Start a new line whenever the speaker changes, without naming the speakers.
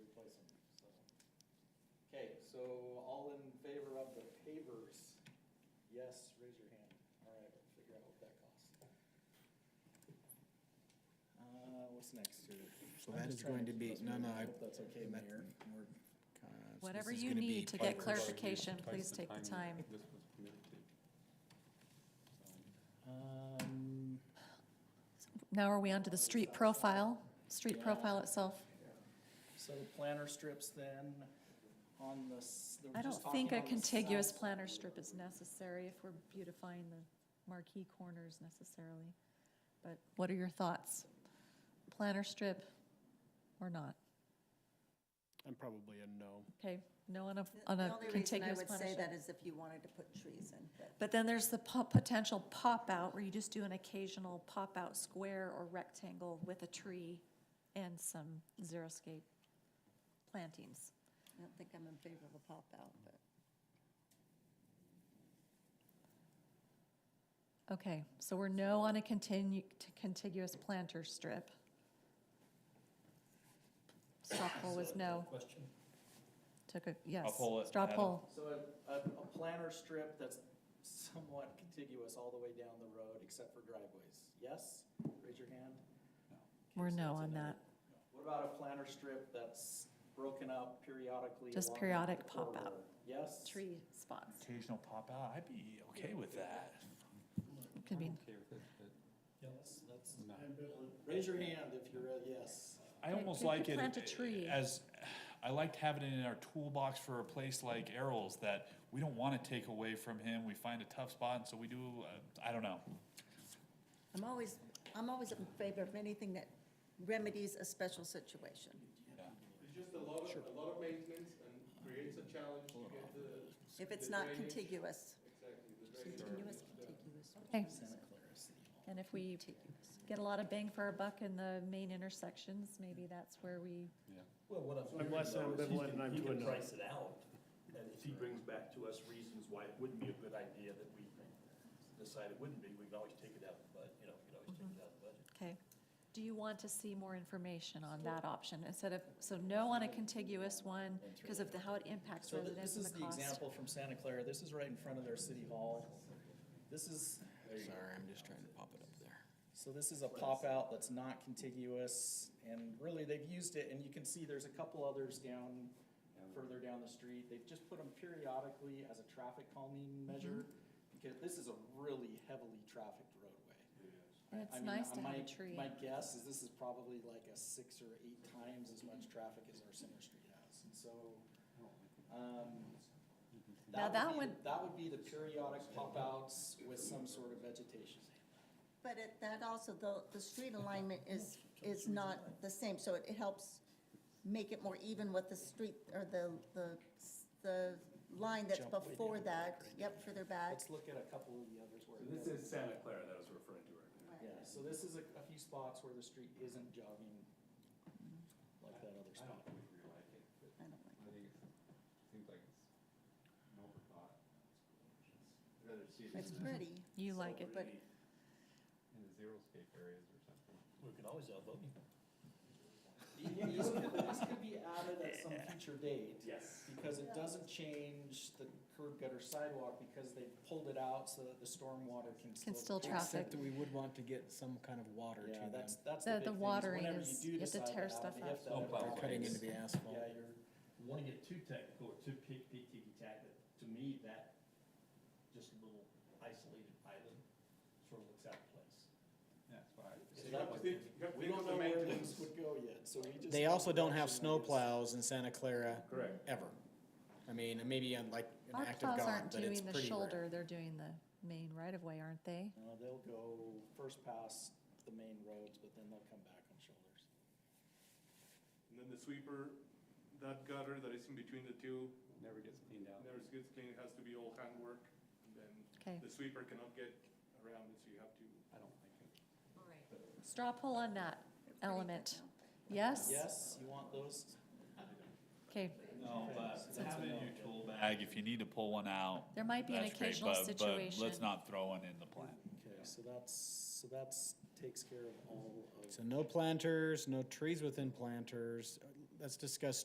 pavers? Yes, raise your hand. All right, we'll figure out what that costs. Uh, what's next here?
So
I'm
that
just
is
trying
going to be,
keep
no,
us
no,
moving.
I.
hope That's okay,
that-
Mayor.
we're, uh, so
Whatever
this is
you
gonna be
need to get
part-
clarification, please take the time.
This was committed to. So,
Um,
Now are we onto the street profile, street
Yeah.
profile itself?
so the planter strips then on the, s- they were
I
just
don't think
talking
a
on the
contiguous
south-
planter strip is necessary if we're beautifying the marquee corners necessarily. But what are your thoughts? Planter strip or not?
I'm probably a no.
Okay, no on a,
The
on
the
a
only reason I
contiguous
would
planter
say
strip.
that is if you wanted to put trees in, but
But then there's the po- potential pop-out where you just do an occasional pop-out square or rectangle with a tree and some xeriscape plantings.
I don't think I'm in favor of a pop-out, but.
Okay, so we're no on a continu, t- contiguous planter strip. Straw poll was no. Took a, yes.
poll it,
Straw
Adam.
poll,
So a, a, a planter strip that's somewhat contiguous all the way down the road except for driveways. Yes? Raise your hand. Okay,
we're
so that's
no
a
on that.
What about a planter strip that's broken up periodically?
Just
along the
periodic pop
corridor?
out.
Yes?
Tree spots,
Occasional pop out, I'd be okay with that.
could be,
I'm okay with it, but
Yes, that's,
not.
raise your hand if you're a yes.
I
You-
almost
you could
like it
plant a tree.
as, I liked having it in our toolbox for a place like Errol's that we don't wanna take away from him, we find a tough spot, and so we do, uh, I don't know.
I'm always, I'm always in favor of anything that remedies a special situation.
It's just a lot of, a lot of maintenance and creates a challenge to get the.
If it's
the
not
drainage-
contiguous,
Exactly, the drainage.
continuous, contiguous,
okay.
Santa Clara City Hall.
And if we
contiguous.
get a lot of bang for our buck in the main intersections, maybe that's where we
Well, what I'm.
I'm less
hearing, though, is he
ambivalent
can-
and I'm
He
to a
can
no.
price it out, and if he brings back to us reasons why it wouldn't be a good idea that we decide it wouldn't be, we can always take it out of the budget, you know, we can always take it out of the budget.
Okay. Do you want to see more information on that option instead of, so no on a contiguous one because of the, how it impacts
So th- this
residents and
is
the
the
cost?
example from Santa Clara. This is right in front of their city hall. This is,
Sorry, I'm just trying to pop it up there.
So this is a pop-out that's not contiguous, and really, they've used it, and you can see there's a couple others down, further down the street. They've just put them periodically as a traffic calming
Mm-hmm.
measure, because this is a really heavily trafficked roadway.
And
I
it's
mean,
nice to have
my-
a tree.
My guess is this is probably like a six or eight times as much traffic as our center street has, and so, um,
Now that
would be-
one-
That would be the periodic pop-outs with some sort of vegetation.
But it, that also, the, the street alignment is, is not the same, so it, it helps make it more even with the street, or the, the, the line that's
Jump way
before
down.
that, yep, further back.
Let's look at a couple of the others where.
So this
it doesn't.
is Santa Clara that I was referring to right now.
Right.
Yeah, so this is a, a few spots where the street isn't jogging like that other
I
spot.
don't think we like it, but
I don't like
I think it's, seems like it's an overthought. I'd rather see it
it. It's
in
pretty.
You like it, but
the zero scape areas or something.
We can always elbow you.
These could, these could be added at some future date.
Yes.
Because it doesn't change the curb gutter sidewalk because they pulled it out so that the stormwater can still.
Can still
pass.
traffic.
Except that we would want to get some kind of water to
Yeah,
them.
that's, that's
The-
the big thing,
the
is
watering
whenever you
is-
do
you have to
decide
tear
add it,
stuff
you
out.
have to
Don't
add it
plow
out.
They're Oh, cutting into the asphalt.
Yeah, you're.
Want to get too technical or too pick, pick, ticky tack, but to me, that just little isolated island sort of looks out of place.
That's why. I-
So that
Because
would-
they- because
We
they
don't know
go to
where
maintenance.
these would go yet, so we just.
They also don't have
Option is-
snowplows in Santa Clara
Correct.
ever. I mean, maybe on like an
Our
act of
plows
God,
aren't
but it's
doing the
pretty rare.
shoulder, they're doing the main right of way, aren't they?
No, Uh, they'll go first past the main roads, but then they'll come back on shoulders.
And then the sweeper, that gutter that is in between the two,
Never gets cleaned out.
never gets cleaned, it has to be all handwork. And then
Okay,
the sweeper cannot get around it, so you have to.
I don't like it.
straw poll on that
Pretty good
element.
now.
Yes?
Yes, you want those?
Okay,
No, but
So it's a
having
no.
in your tool bag, if you need to pull one out,
there might be an
that's great,
occasional
but, but
situation.
let's not throw one in the plant.
Okay, so that's, so that's, takes care of all of.
So no planters, no trees within planters. Let's discuss